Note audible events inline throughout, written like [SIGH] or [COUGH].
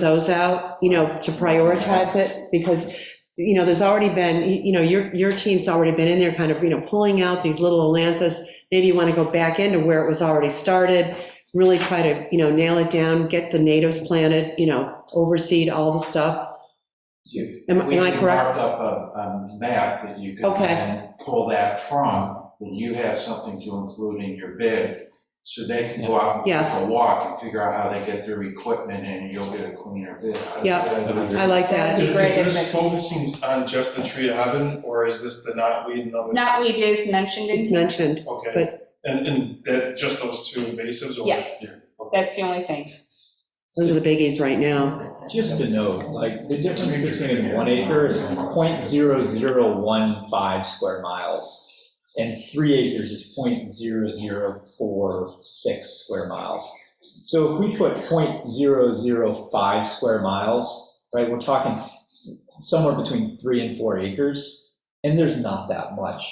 those out, you know, to prioritize it, because, you know, there's already been, you you know, your, your team's already been in there kind of, you know, pulling out these little Atlantis. Maybe you want to go back into where it was already started, really try to, you know, nail it down, get the natives planted, you know, overseed all the stuff. If Am- we am I can correct? Mark up a, a map that you can Okay. then pull that from, that you have something to include in your bid. So they can go out and Yes. take a walk and figure out how they get their equipment and you'll get a cleaner bid. How's Yeah. that? I like that. That'd Is be great is if this it- focusing on just the tree of heaven, or is this the knotweed and other? Knotweed is mentioned It's in, mentioned. Okay, but- and, and that, just those two invasives? or- Yeah. that's the only thing. Those are the biggies right now. Just to note, like, the difference between one acre is 0.0015 square miles, and three acres is 0.0046 square miles. So if we put 0.005 square miles, right, we're talking somewhere between three and four acres, and there's not that much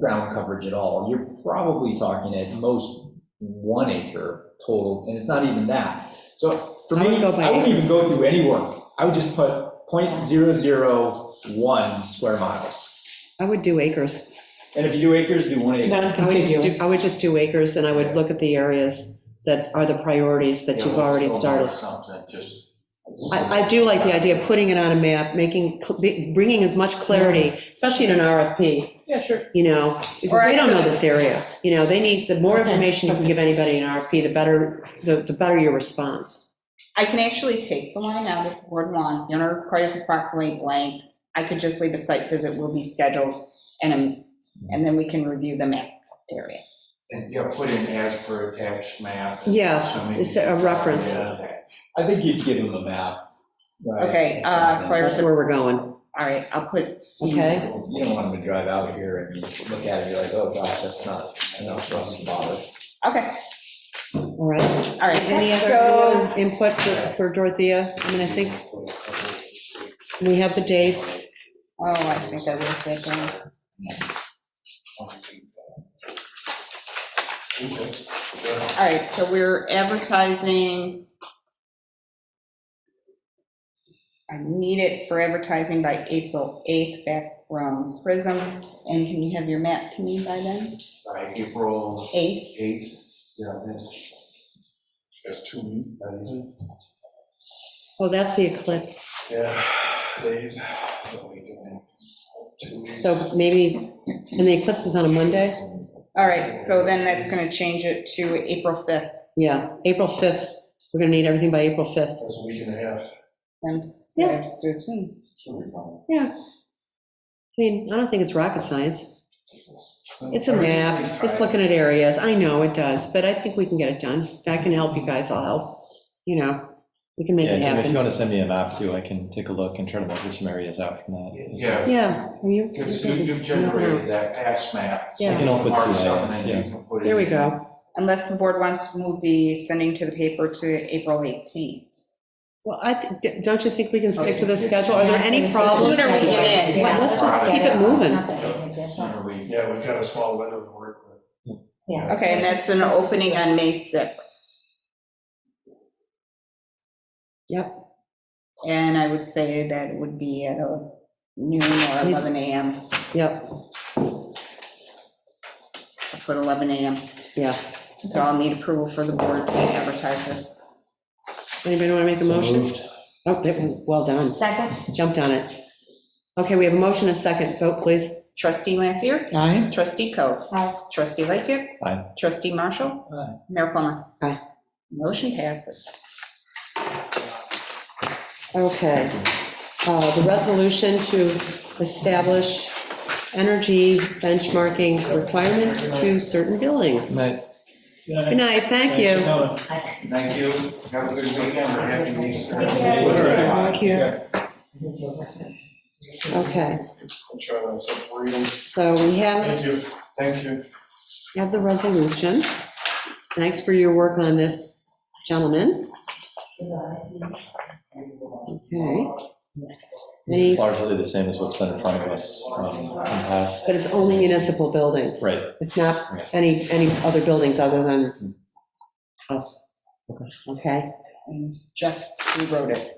ground coverage at all. You're probably talking at most one acre total, and it's not even that. So for I would me, go by I wouldn't even acres. go through any work. I would just put 0.001 square miles. I would do acres. And if you do acres, do one acre. I [LAUGHS] would just do, I would just do acres, and I would look at the areas that are the priorities that Yeah, you've let's already go mark started. Something, just. I, I do like the idea of putting it on a map, making, bringing as much clarity, especially in an RFP, Yeah, sure. you know, Or because I they don't know could- this area. You know, they need, the more Okay, information you can give anybody in an RFP, the better, the, the better your response. I can actually take the line out if the board wants, the owner requires approximately blank. I could just leave a site visit will be scheduled, and, and then we can review the map area. And, yeah, put in as per attached map. Yes, So maybe- it's a reference. Yeah. I think you'd give them a map. right? Okay, uh, prior- That's where we're going, All right, I'll put C. okay? You don't want them to drive out here and look at it, you're like, oh gosh, that's not enough for us to bother. Okay, All right. all right. Any other, any So, other input for- for Dorothea? I mean, I think we have the dates. oh, I think I wrote that down. All right, so we're advertising. I need it for advertising by April 8th back from Prism. And can you have your map to me by then? By April 8th? 8th, yeah, that's. That's two weeks, that is it? Oh, that's the eclipse. Yeah, they, what we doing. two weeks. So maybe, and the eclipse is on a Monday? All right, so then that's going to change it to April 5th. Yeah, April 5th. We're going to need everything by April 5th. That's a week and a half. I'm s- I'm so soon. I mean, I don't think it's rocket science. It's a map, it's looking at areas, I know it does, but I think we can get it done. If I can help you guys, I'll help, you know, we can make Yeah, it Jim, if you happen. want to send me a map too, I can take a look and try to measure some areas out from that. as well. Yeah, Yeah, are you? Because you- you've generated that pass map. so Yeah. you Taken off with mark GIS, something and you yeah. can put it There we in. go. Unless the board wants to move the sending to the paper to April 18th. Well, I, thi- don't you think we can stick to the schedule? Are there any problems? Sooner we get in. Well, Let's just keep it moving. Sooner we- Yeah, we've got a small window to work with. Okay, and that's an opening on May 6th. Yep. And I would say that it would be at a noon or 11 AM. Yep, I put 11 AM. yeah. So I'll need approval for the board to advertise this. Anybody want to make a So motion? moved. Oh, there- well done, Second. jumped on it. Okay, we have a motion, a second, vote please. Trustee Lampier. Aye. Trustee Coe. Aye. Trustee Lightfoot. Aye. Trustee Marshall. Aye. Mayor Plummer. Aye. Motion passes. Okay. Uh, The resolution to establish energy benchmarking requirements to certain buildings. Night. Good night, thank you. Thank you. Have a good weekend. We're happy to see you. Thank you. Okay, I'm trying to separate them. so we have, Thank you, thank you. have the resolution. Thanks for your work on this, gentlemen. Okay. This Any- is largely the same as what's been in front of us um, in the past. But it's only municipal buildings. Right, It's not Right. any, any other buildings other than us. Okay, and Jeff rewrote it.